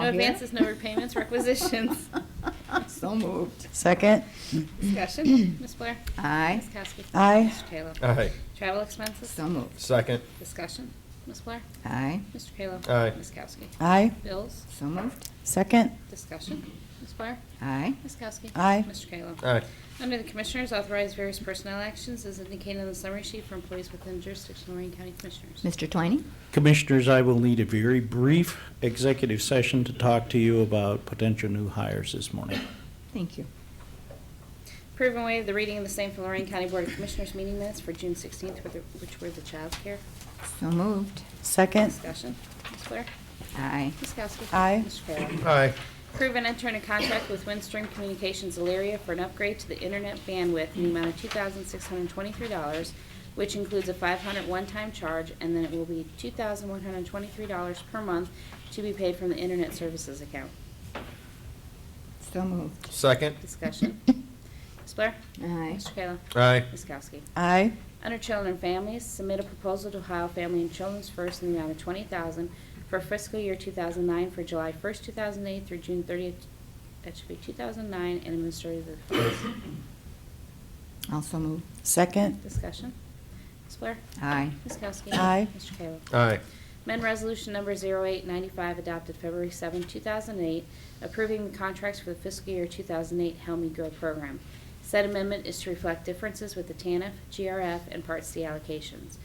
No here? advances, no repayments, requisitions. So moved. Second? Discussion, Ms. Blair? Aye. Ms. Kowski? Aye. Mr. Taylor? Aye. Travel expenses? So moved. Second. Discussion, Ms. Blair? Aye. Mr. Kayla? Aye. Ms. Kowski? Aye. Bills? So moved. Second? Discussion, Ms. Blair? Aye. Ms. Kowski? Aye. Mr. Kayla? Aye. Under the Commissioners, authorize various personnel actions as indicated on the summary sheet for employees within jurisdiction of Lorraine County Commissioners. Mr. Twining? Commissioners, I will need a very brief executive session to talk to you about potential new hires this morning. Thank you. Approve and waive the reading of the same for Lorraine County Board of Commissioners meeting minutes for June 16th, with the- which were the child care. So moved. Second? Discussion, Ms. Blair? Aye. Ms. Kowski? Aye. Mr. Kayla? Aye. Approve and enter into contract with Windstream Communications Elyria for an upgrade to the internet bandwidth in the amount of $2,623, which includes a $500 one-time charge, and then it will be $2,123 per month to be paid from the internet services account. So moved. Second. Discussion. Ms. Blair? Aye. Mr. Kayla? Aye. Ms. Kowski? Aye. Under Children and Families, submit a proposal to Ohio Family and Children's First in the amount of twenty thousand for fiscal year two thousand nine for July first, two thousand eight through June thirtieth, that should be two thousand nine, and administrative funds. Also moved. Second? Discussion. Ms. Blair? Aye. Ms. Kowski? Aye. Mr. Kayla? Aye. Amend Resolution Number 0895, adopted February 7, 2008, approving the contracts for the fiscal year 2008 Help Me Grow program. Said amendment is to reflect differences with the TANF, GRF, and Part C allocations.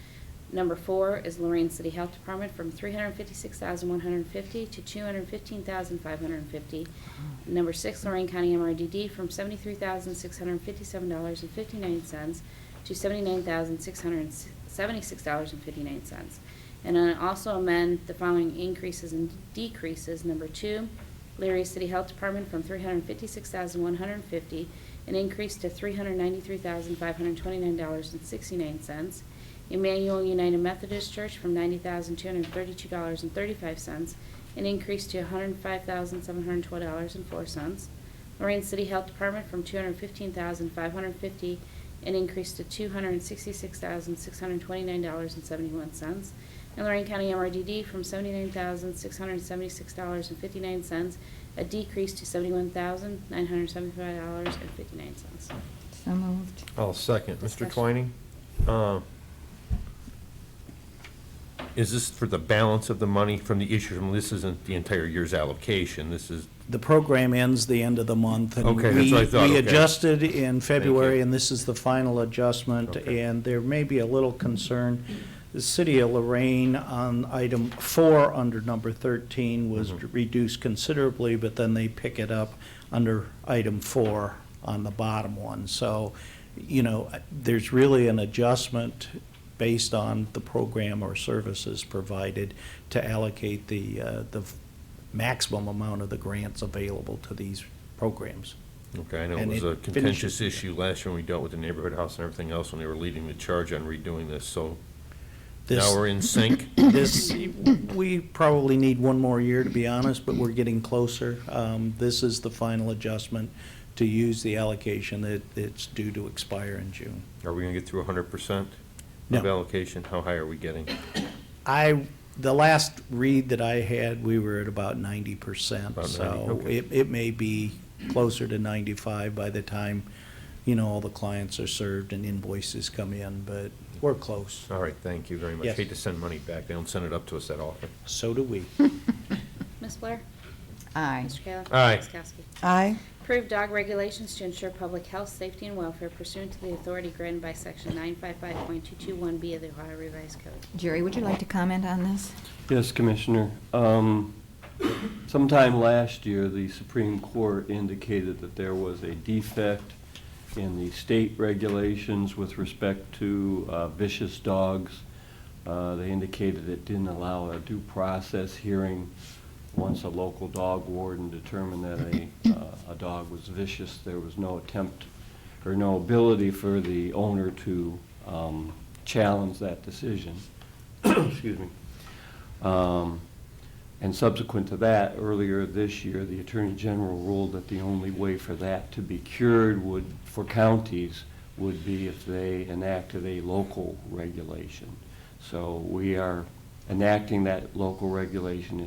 Number four is Lorraine City Health Department from 316150 to 215550 Number six, Lorraine County MRDD from $73,657.59 to $79,676.59. And then also amend the following increases and decreases. Number two, Leary City Health Department from $356,150, an increase to $393,529.69. Emmanuel United Methodist Church from $90,232.35, an increase to $105,712.04. Lorraine City Health Department from $215,550, an increase to $266,629.71. And Lorraine County MRDD from $79,676.59, a decrease to $71,975.59. So moved. I'll second. Mr. Discussion. Twining? uh, Is this for the balance of the money from the issue? from- This isn't the entire year's allocation. This is, The program ends the end of the month. and Okay, that's what I we- thought, We okay. adjusted in February, you. and this is the final adjustment, Okay. and there may be a little concern. The city of Lorraine on item four, under number 13, was Mm-hmm. reduced considerably, but then they pick it up under item four on the bottom one. So, you know, there's really an adjustment based on the program or services provided to allocate the, uh, the maximum amount of the grants available to these programs. okay, I know it And was it a contentious finishes- issue last year when we dealt with the neighborhood house and everything else when they were leading the charge on redoing this, so This- now we're in sync? This, we probably need one more year, to be honest, but we're getting closer. Um, This is the final adjustment to use the allocation that it's due to expire in June. Are we going to get through 100% of No. allocation? How high are we getting? I, the last read that I had, we were at about ninety percent. About 90, So okay. it, it may be closer to ninety-five by the time, you know, all the clients are served and invoices come in, but we're close. All right, thank you very much. Yes. Hate to send money back. They don't send it up to us that often. So do we. Ms. Blair? Aye. Mr. Kayla? Aye. Ms. Kowski? Aye. Approve dog regulations to ensure public health, safety, and welfare pursuant to the authority granted by Section 955.221B of the Ohio Revised Code. Jerry, would you like to comment on this? Yes, Commissioner. Um, Sometime last year, the Supreme Court indicated that there was a defect in the state regulations with respect to uh, vicious dogs. Uh, They indicated it didn't allow a due process hearing. Once a local dog warden determined that a, uh, a dog was vicious, there was no attempt or no ability for the owner to um, challenge that decision. Excuse me. Um, And subsequent to that, earlier this year, the Attorney General ruled that the only way for that to be cured would, for counties, would be if they enacted a local regulation. So we are enacting that local regulation